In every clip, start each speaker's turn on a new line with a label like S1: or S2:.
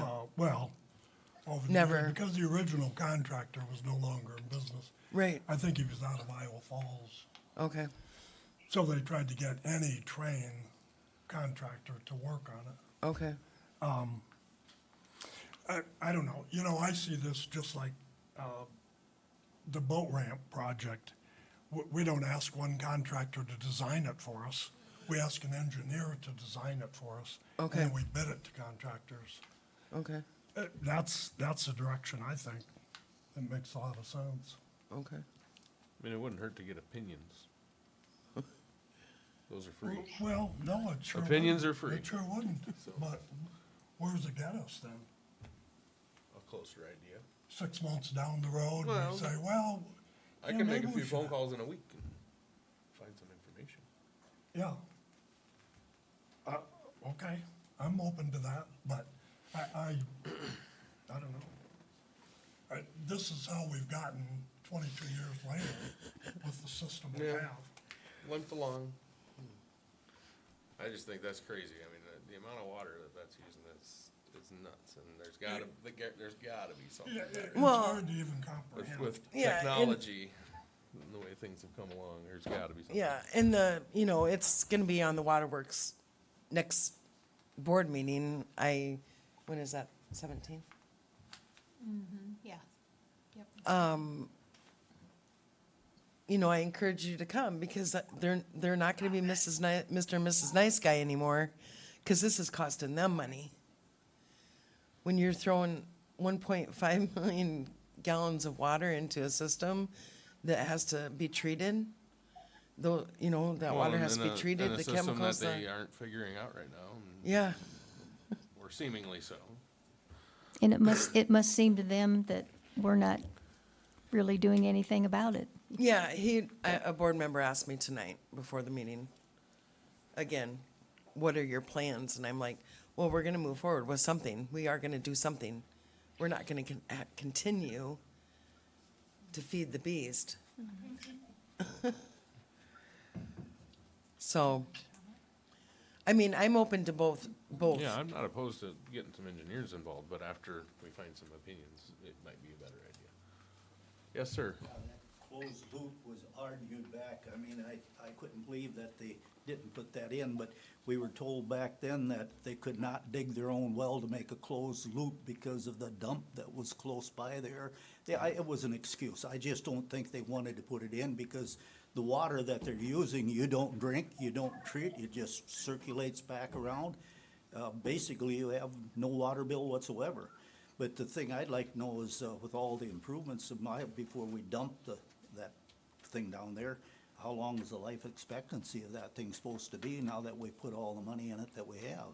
S1: Uh, well, over the
S2: Never.
S1: years, because the original contractor was no longer in business.
S2: Right.
S1: I think he was out of Iowa Falls.
S2: Okay.
S1: So they tried to get any train contractor to work on it.
S2: Okay.
S1: I, I don't know, you know, I see this just like, uh, the boat ramp project. We, we don't ask one contractor to design it for us. We ask an engineer to design it for us.
S2: Okay.
S1: And then we bid it to contractors.
S2: Okay.
S1: Uh, That's, that's the direction I think. That makes a lot of sense.
S2: Okay.
S3: I mean, it wouldn't hurt to get opinions. Those are free.
S1: Well, no, it sure.
S3: Opinions
S1: wouldn't.
S3: are free.
S1: It sure wouldn't, but where's it get us then?
S3: A closer idea.
S1: Six months down the road, and
S3: Well-
S1: we say, well.
S3: I
S1: yeah,
S3: can make
S1: maybe
S3: a
S1: we
S3: few phone
S1: should.
S3: calls in a week and find some information.
S1: Yeah. Uh, okay, I'm open to that, but I, I, I don't know. I, this is how we've gotten twenty-two years later with the system we
S3: Yeah.
S1: have.
S3: Limped along. I just think that's crazy. I mean, the, the amount of water that that's using is, is nuts and there's gotta, the ge- there's gotta be something
S1: Yeah, it-
S3: better.
S1: it's
S2: Well-
S1: hard to even
S3: With,
S1: comprehend.
S3: with
S2: Yeah, and-
S3: technology, and the way things have come along, there's gotta be something.
S2: Yeah, and the, you know, it's gonna be on the waterworks next board meeting. I, when is that, seventeenth?
S4: Yeah. Yep.
S2: You know, I encourage you to come because they're, they're not gonna be Mrs. Ni- Mr. and Mrs. Nice Guy anymore, cause this is costing them money. When you're throwing one point five million gallons of water into a system that has to be treated, though, you know, that
S3: Well,
S2: water
S3: and
S2: has to
S3: in
S2: be
S3: a- in
S2: treated,
S3: a
S2: the
S3: system
S2: chemicals, uh,
S3: That they uh,
S2: the-
S3: aren't figuring out right now, and-
S2: yeah.
S3: or seemingly so.
S4: And it must, it must seem to them that we're not really doing anything about it.
S2: Yeah, he, a, a board member asked me tonight before the meeting, again, what are your plans? And I'm like, well, we're gonna move forward with something. We are gonna do something. We're not gonna con- ha- continue to feed the beast. So, I mean, I'm open to both, both.
S3: Yeah, I'm not opposed to getting some engineers involved, but after we find some opinions, it might be a better idea. Yes, sir.
S5: Uh, that Closed loop was argued back. I mean, I, I couldn't believe that they didn't put that in, but we were told back then that they could not dig their own well to make a closed loop because of the dump that was close by there. Yeah, I, it was an excuse. I just don't think they wanted to put it in because the water that they're using, you don't drink, you don't treat, it just circulates back around. Uh, basically, you have no water bill whatsoever. But the thing I'd like to know is, uh, with all the improvements of my, before we dump the, that thing down there, how long is the life expectancy of that thing supposed to be now that we put all the money in it that we have?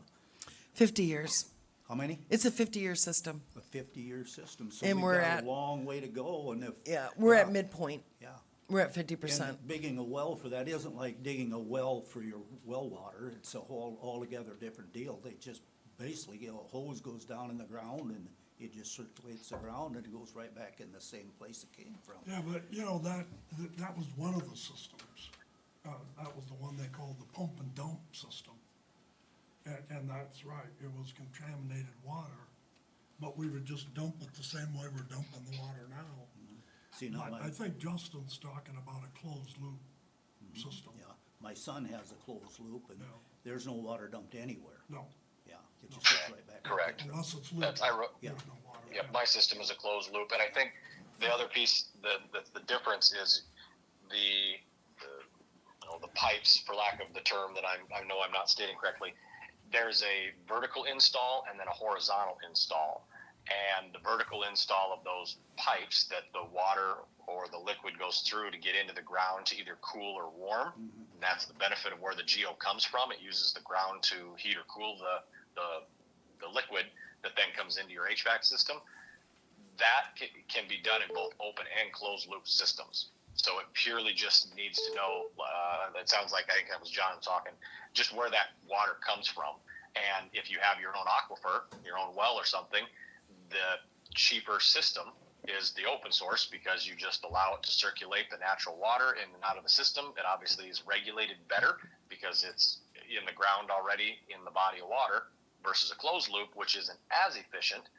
S2: Fifty years.
S5: How many?
S2: It's a fifty-year system.
S5: A fifty-year system, so
S2: And
S5: we've
S2: we're
S5: got
S2: at-
S5: a long way to go, and if.
S2: Yeah, we're at midpoint.
S5: Yeah.
S2: We're at fifty percent.
S5: And digging a well for that isn't like digging a well for your well water, it's a whole, altogether different deal. They just basically, you know, a hose goes down in the ground and it just circulates the ground and it goes right back in the same place it came from.
S1: Yeah, but, you know, that, that- that was one of the systems. Uh, that was the one they called the pump and dump system. And, and that's right, it was contaminated water, but we would just dump it the same way we're dumping the water
S5: Mm-hmm.
S1: now.
S5: See, now
S1: But
S5: my,
S1: I think Justin's talking about a closed loop system.
S5: Mm-hmm. yeah, my son has a closed loop and
S1: Yeah.
S5: there's no water dumped anywhere,
S1: No,
S5: yeah. It just goes right back.
S6: Correct.
S1: unless it's lit.
S6: That's, I wrote,
S5: Yeah.
S1: There's no water.
S6: yeah, my system is a closed loop, and I think the other piece, the, the, the difference is the, the, you know, the pipes, for lack of the term that I'm, I know I'm not stating correctly, there's a vertical install and then a horizontal install. And the vertical install of those pipes that the water or the liquid goes through to get into the ground to either cool or warm. And that's the benefit of where the geo comes from. It uses the ground to heat or cool the, the, the liquid that then comes into your HVAC system that can, can be done in both open and closed loop systems. So it purely just needs to know. Uh, that sounds like I think that was John talking. Just where that water comes from, and if you have your own aquifer, your own well or something, the cheaper system is the open source because you just allow it to circulate the natural water in and out of the system. It obviously is regulated better because it's in the ground already in the body of water versus a closed loop, which isn't as efficient